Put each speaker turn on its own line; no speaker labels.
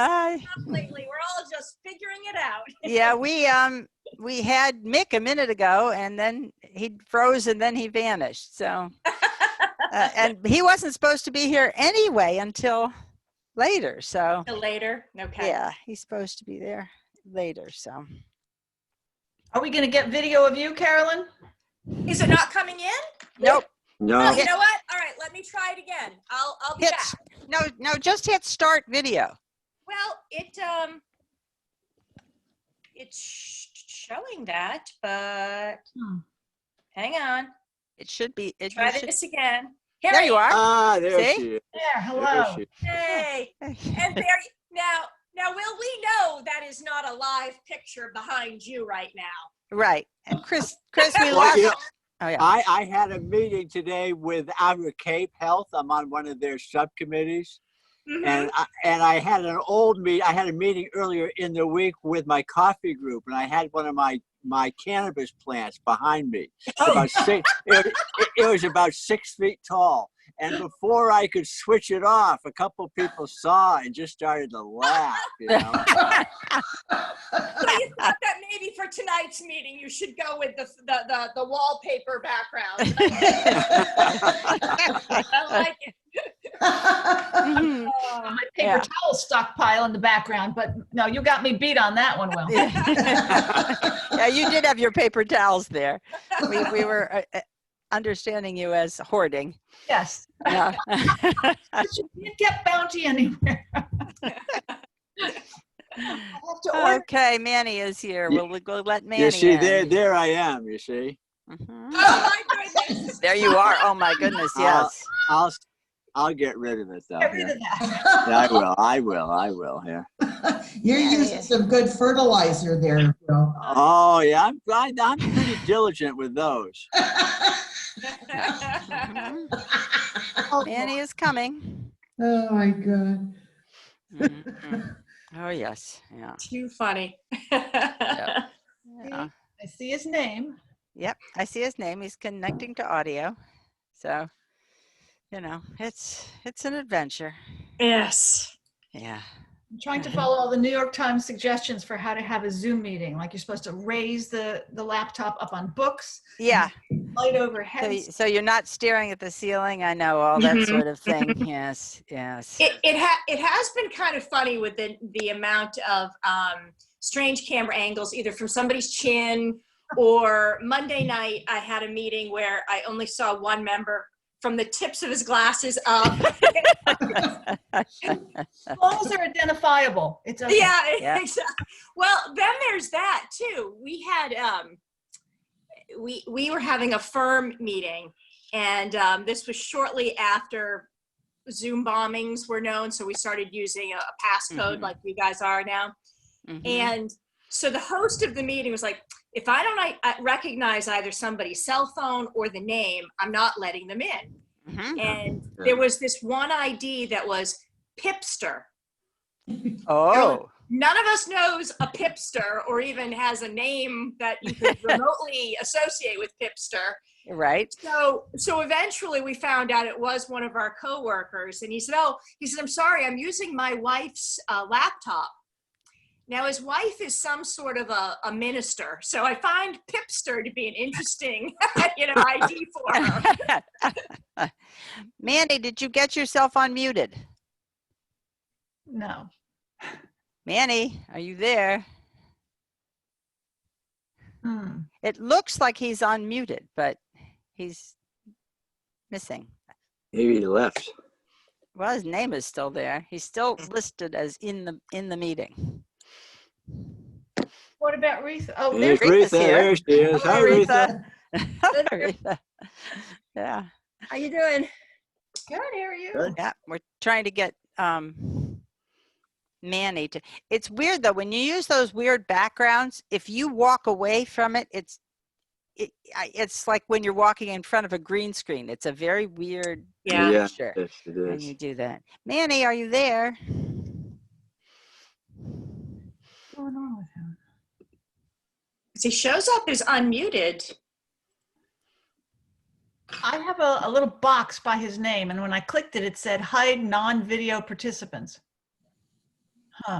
I-
lately. We're all just figuring it out.
Uh, Yeah, we, um, we had Mick a minute ago and then he froze and then he vanished, so. uh, And he wasn't supposed to be here anyway until later, so,
Till later. Okay.
yeah, he's supposed to be there later, so.
Are we going to get video of you, Carolyn?
Is it not coming in?
Nope,
Oh,
No,
you know what? All right, let me try it again. I'll I'll be
hit,
back.
s- no, no, just hit start video.
Well, it um, it's sh- showing that, but
Hmm.
hang on.
It should be, it
Try
you should-
this again. Here
there
I
you are.
ah, there
See?
she is.
There,
There
hello.
she is.
Hey, and there y- now now will we know that is not a live picture behind you right now?
Right, and Chris, Chris, we
Well,
lost,
you know,
oh yeah,
I, I had a meeting today with Outer Cape Health. I'm on one of their subcommittees.
Mhm.
And I, and I had an old meet. I had a meeting earlier in the week with my coffee group, and I had one of my my cannabis plants behind me. About six, it, it- it was about six feet tall. And before I could switch it off, a couple people saw and just started to laugh. You know?
So you thought that maybe for tonight's meeting you should go with the the the, the wallpaper background. I like it.
Mhm.
Oh,
My paper
Yeah.
towel stockpile in the background, but no, you got me beat on that one, Will.
Yeah, you did have your paper towels there. We, we were uh, uh, understanding you as hoarding.
Yes,
Yeah.
but you didn't get bounty anywhere. I have to order.
Okay, Manny is here.
Ye-
We'll, we'll let Manny
you see,
in.
there there I am. You see,
Mhm.
Oh my goodness.
There you are. Oh, my goodness,
I'll-
yes.
I'll s- I'll get rid of it though.
Get rid
Yeah.
of that.
Yeah, I will. I will. I will. Yeah.
You're
Yeah, yeah.
using some good fertilizer there, Bill.
Oh yeah, I'm I, I'm pretty diligent with those.
Mhm. Manny is coming.
Oh, my God.
Mhm. Oh, yes, yeah.
Too funny.
yeah.
I see his name.
Yep, I see his name. He's connecting to audio. So, you know, it's, it's an adventure.
yes.
Yeah.
I'm trying to follow all the New York Times suggestions for how to have a Zoom meeting. Like you're supposed to raise the, the laptop up on books,
Yeah.
light
So, y-
overhead.
so you're not staring at the ceiling. I know all that
Mhm.
sort of thing. Yes, yes.
It it, ha- it has been kind of funny with the the amount of um, strange camera angles, either from somebody's chin or Monday night. I had a meeting where I only saw one member from the tips of his glasses up.
As long as they're identifiable, it's okay.
yeah,
Yeah.
exactly. Well, then there's that too. We had um, we we were having a firm meeting, and um, this was shortly after Zoom bombings were known, so we started using a, a passcode
Mhm.
like you guys are now.
Mhm.
And so the host of the meeting was like, "If I don't I, I recognize either somebody's cell phone or the name, I'm not letting them in."
Mhm.
And there was this one ID that was Pipster.
Oh,
none of us knows a pipster or even has a name that you could remotely associate with pipster
right.
so so eventually we found out it was one of our coworkers and he said oh he said i'm sorry i'm using my wife's uh, laptop now his wife is some sort of a, a minister so i find pipster to be an interesting you know id for her
Mandy, did you get yourself unmuted?
No.
Manny, are you there?
Hmm.
It looks like he's unmuted, but he's missing.
Maybe he left.
Well, his name is still there. He's still listed as in the in the meeting.
What about Reese? Oh,
There's
there's,
Aretha's
Aretha.
here.
There she is. Hi,
Hello,
Aretha.
Aretha. Aretha. Yeah.
how you doing
good, how are you?
Good.
Yeah, we're trying to get um Manny to. It's weird though when you use those weird backgrounds. If you walk away from it, it's it, I- it's like when you're walking in front of a green screen. It's a very weird
yeah,
Yeah.
picture
Yes, it
when
is.
you do that. Manny, are you there?
What's going on with him?
'Cause he shows up as unmuted
I have a, a little box by his name, and when I clicked it, it said hide non-video participants. Huh.